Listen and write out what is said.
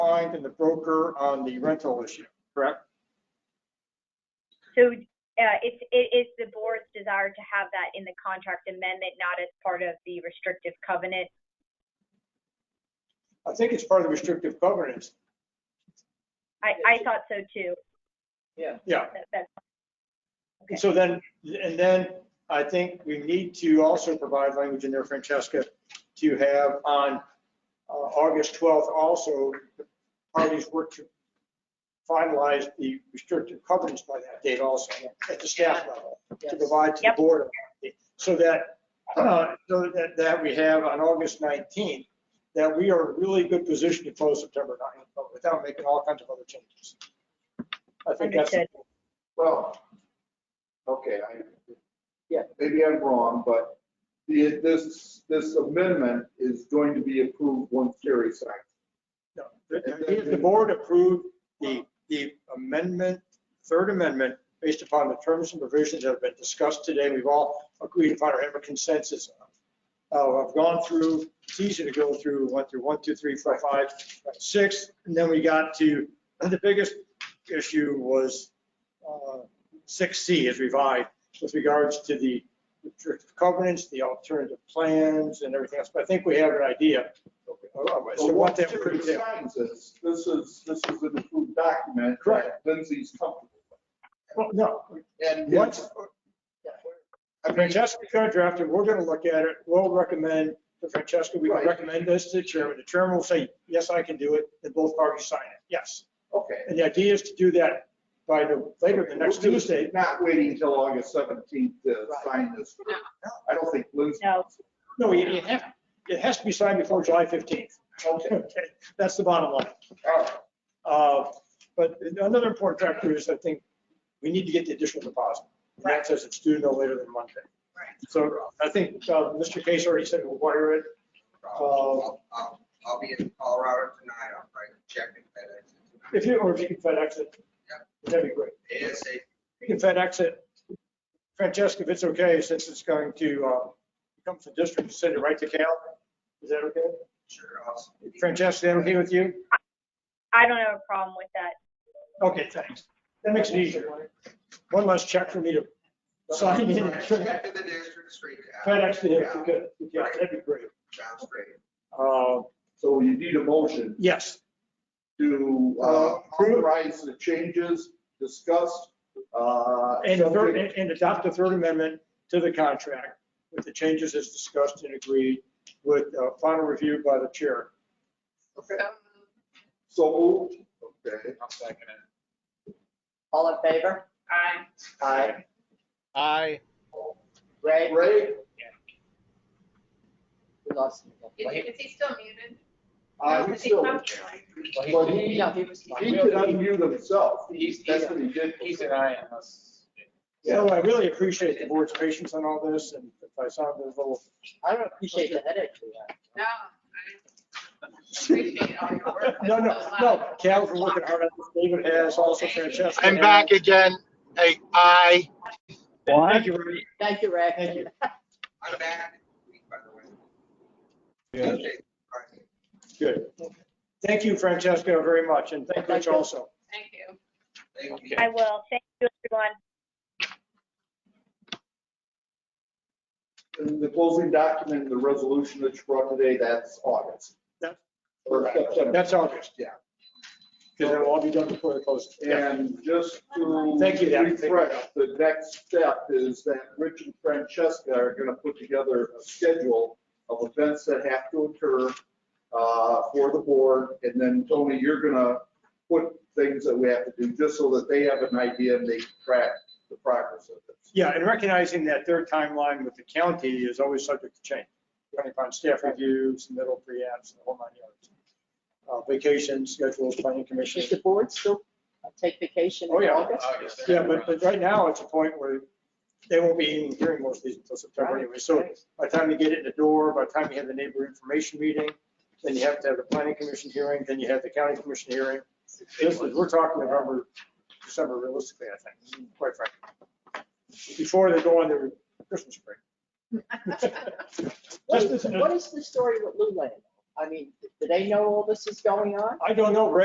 client and the broker on the rental issue, correct? So uh, it's, it is the board's desire to have that in the contract amendment, not as part of the restrictive covenant. I think it's part of the restrictive covenants. I, I thought so too. Yeah. Yeah. That- that- Okay. So then, and then I think we need to also provide language in there, Francesca, to have on uh, August 12th also, the parties work to finalize the restrictive covenants by that date also, at the staff level, to provide to the Yep. board. So that, uh, so that, that we have on August 19th, that we are in a really good position to close September 9th, but without making all kinds of other changes. I think that's. Understood. Well, okay, I. Yeah. Maybe I'm wrong, but the, this, this amendment is going to be approved once Jerry signs. No, The the- the board approved the, the amendment, third amendment, based upon the terms and provisions that have been discussed today. We've all agreed upon or have a consensus on. Uh, I've gone through, it's easy to go through, went through one, two, three, four, five, six, and then we got to, the biggest issue was uh, six C is revised with regards to the restrictive covenants, the alternative plans and everything else. But I think we have an idea of So of what once that Jerry would entail. signs this, this is, this is an approved document. Correct. that Lindsay's comfortable Well, no, with. And once, once, I mean, Francesca's gonna draft it, we're gonna look at it, we'll recommend, to Francesca, we can Right. recommend this to the chairman, the chairman will say, yes, I can do it, and both parties sign it, yes. okay. And the idea is to do that by the, later, the next We're just Tuesday. Not waiting until August seventeenth to Right. sign this. I don't think Lindsay. No. No, you you have, it has to be signed before July 15th. Okay, Okay, That's the bottom line. all right. Uh, But another important factor is, I think, we need to get the additional deposit. And that says it's due no later than Monday. Right. So I think uh, Mr. Case already said we'll wire it. Uh, I'll, I'll- um, I'll be in Colorado tonight, I'll probably check in FedEx If you, or if you can FedEx it, that'd be great. tonight. ASAP. You can FedEx it. Francesca, if it's okay, since it's going to uh, come to the district, send it right to Cal. Is that okay? Sure, awesome. Francesca, is that okay with you? I don't have a problem with that. Okay, thanks. That makes it easier. One less check for me to sign in. Check to the district straight out. FedEx to him, if you could. Yeah, that'd be great. Sounds great. Uh, So you need a motion Yes, to uh, Uh, approve. authorize the changes discussed. uh, and the third, subject- and- and adopt the third amendment to the contract with the changes as discussed and agreed with uh, final review by the chair. Okay. So moved. Okay. I'll second it. All in favor? Aye. Aye. Aye. Ray, Ray? we lost him again. Is, is he still muted? Uh, Aye. Is he So- not muted? Well, he, No, he was. he could unmute himself. He's, he's, That's what he did. he's an aye unless. So I really appreciate the board's patience on all this, and if I sound a little, I don't appreciate the headache we had. No. I Appreciate all your work. no, no, no, Cal's been working hard on this, David has, also Francesca. I'm back again. Hey, aye. Thank you, Ray. Thank you, Ray. Thank you. I'm back next week, by the way. Good. Okay, all right. Good. Thank you, Francesca, very much, and thank Rich also. Thank you. Thank you. Okay. I will. Thank you, everyone. And The closing document, the resolution that you brought today, that's August. That's- Or September. That's August. Yeah. Because it'll all be done before the close. And just to. Thank you, Dan. Refresh, the next step is that Rich and Francesca are gonna put together a schedule of events that have to occur uh, for the board, and then Tony, you're gonna put things that we have to do, just so that they have an idea and they can track the progress of this. Yeah, and recognizing that their timeline with the county is always subject to change, depending upon staff reviews, middle pre-apps, and the whole nine yards. Uh, Vacation schedules, planning commission. Should the board still uh, take vacation Oh, in yeah. August? Yeah, but, but right now, it's a point where they won't be even hearing most of these until September Right, anyway. So right. by the time you get it in the door, by the time you have the neighbor information meeting, then you have to have the planning commission hearing, then you have the county commission hearing. This is, we're talking November, December realistically, I think, quite frankly. Before they go on their Christmas break. Let's listen to- What is the story with Lou Land? I mean, do they know all this is going on? I don't know, Ray,